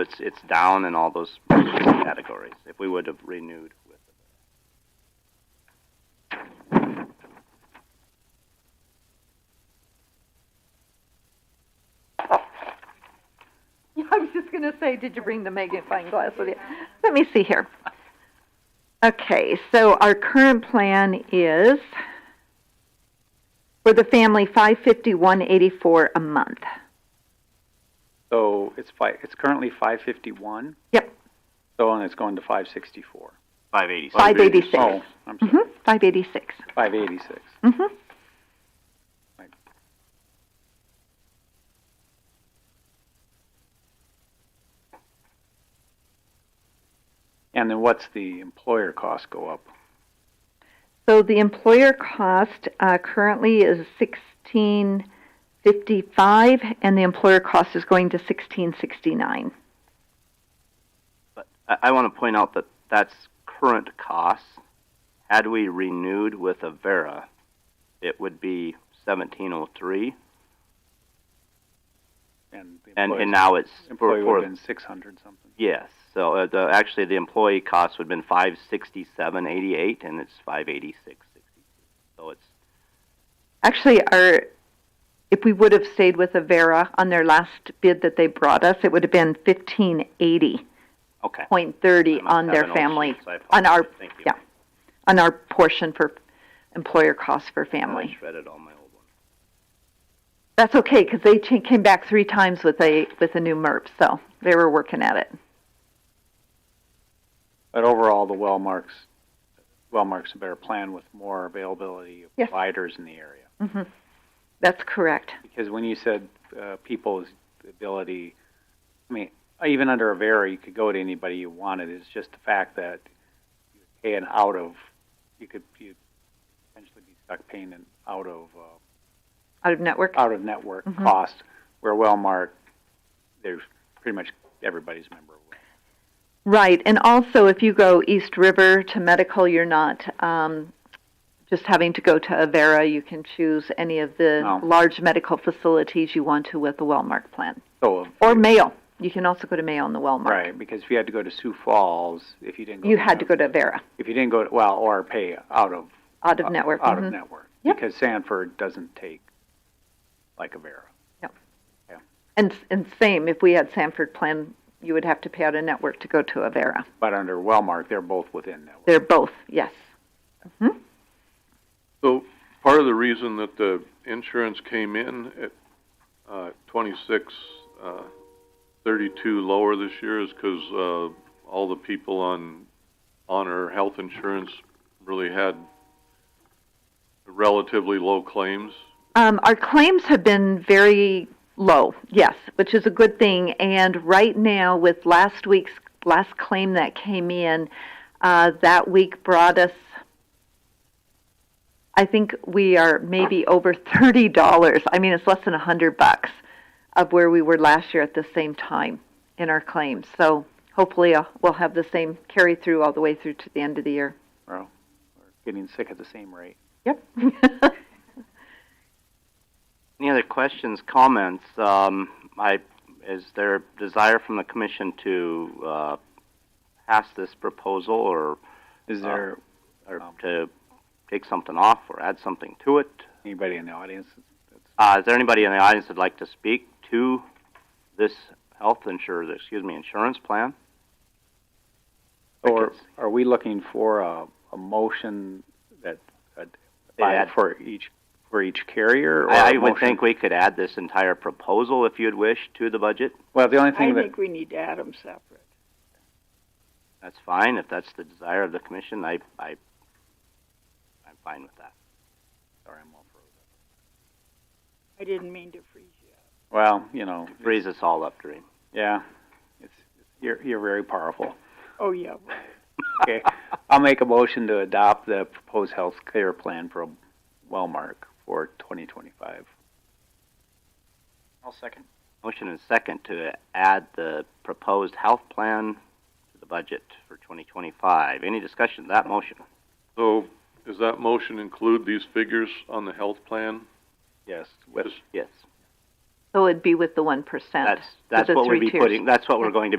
It's, it's down in all those categories, if we would have renewed with. Yeah, I was just going to say, did you bring the magnifying glass with you? Let me see here. Okay, so our current plan is for the family five fifty one eighty four a month. So it's fi- it's currently five fifty-one? Yep. So, and it's going to five sixty-four. Five eighty. Five eighty six. Oh, I'm sorry, Mm-hmm. Five eighty six. five eighty-six. Mm-hmm. And then what's the employer cost go up? So the employer cost uh, currently is sixteen fifty five, and the employer cost is going to sixteen sixty nine. But I, I want to point out that that's current costs. Had we renewed with Avera, it would be seventeen oh three, And the and, employee's- and now it's Employee for- would for- have been six hundred something. Yes, so uh, the, actually the employee cost would have been five sixty-seven eighty-eight, and it's five eighty-six sixty-two. So it's Actually, our if we would have stayed with Avera on their last bid that they brought us, it would have been fifteen eighty okay. point thirty I must on have their an old family sheet, so I on our- apologize. Thank you. yeah, on our portion for employer costs for I family. shredded all my old ones. That's okay because they cha- came back three times with a with a new MERP, so they were working at it. But overall, the Wellmark's, Wellmark's a better plan with more availability of Yes. providers in the area. hmm That's correct. Because when you said uh, people's ability, I mean, even under a Avera, you could go to anybody you wanted. It's just the fact that you pay an out of, you could you potentially be stuck paying an out of uh, Out of network. out of network Mhm. cost. Where Wellmark, there's pretty much everybody's a member. Of Wellmark. Right, and also if you go East River to medical, you're not um, just having to go to Avera. You can choose any of the No. large medical facilities you want to with the Wellmark plan, So if or you- Mayo. You can also go to Mayo on the Wellmark. right because if you had to go to Sioux Falls, if you didn't go You to had to Nev- go to Avera if you didn't go to, well or pay out of out of network. out mhm. of network Yep. because Sanford doesn't take like a Vera. And and same, if we had Sanford plan, you would have to pay out of network to go to Avera. But under Wellmark, they're both within network. They're both yes. So part of the reason that the insurance came in at uh, 26, uh, 32 lower this year is because uh, all the people on honor health insurance really had relatively low claims. Um, our claims have been very low, yes, which is a good thing. And right now, with last week's last claim that came in, uh, that week brought us. I think we are maybe over thirty dollars. I mean, it's less than a hundred bucks of where we were last year at the same time in our claims. So hopefully, uh, we'll have the same carry through all the way through to the end of the year. Getting sick at the same rate. Yep. Any other questions, comments? Um, I, is there desire from the commission to, uh, pass this proposal or, Is there or Um, to take something off or add something to it? anybody in the audience? That's, Uh, is there anybody in the audience that'd like to speak to this health insurance, excuse me, insurance plan? or are we looking for a, a motion that uh, by- add- for each for each carrier? Or I, I a would motion- think we could add this entire proposal, if you'd wish, to the budget. Well, the only thing I that think we need to add them separate. That's fine. If that's the desire of the commission, I, I, I'm fine with that. sorry, I'm all frozen. I didn't mean to freeze you. Well, you know, Frees us all up, Doreen. yeah, it's you're you're very powerful. Oh, yeah. Okay, I'll make a motion to adopt the proposed health care plan from Wellmark for 2025. I'll second. Motion and second to add the proposed health plan to the budget for 2025. Any discussion of that motion? So does that motion include these figures on the health plan? Yes, with Just- Yes. so it'd be with the one percent. That's, that's the what we'd three be tiers. putting, that's what we're going to be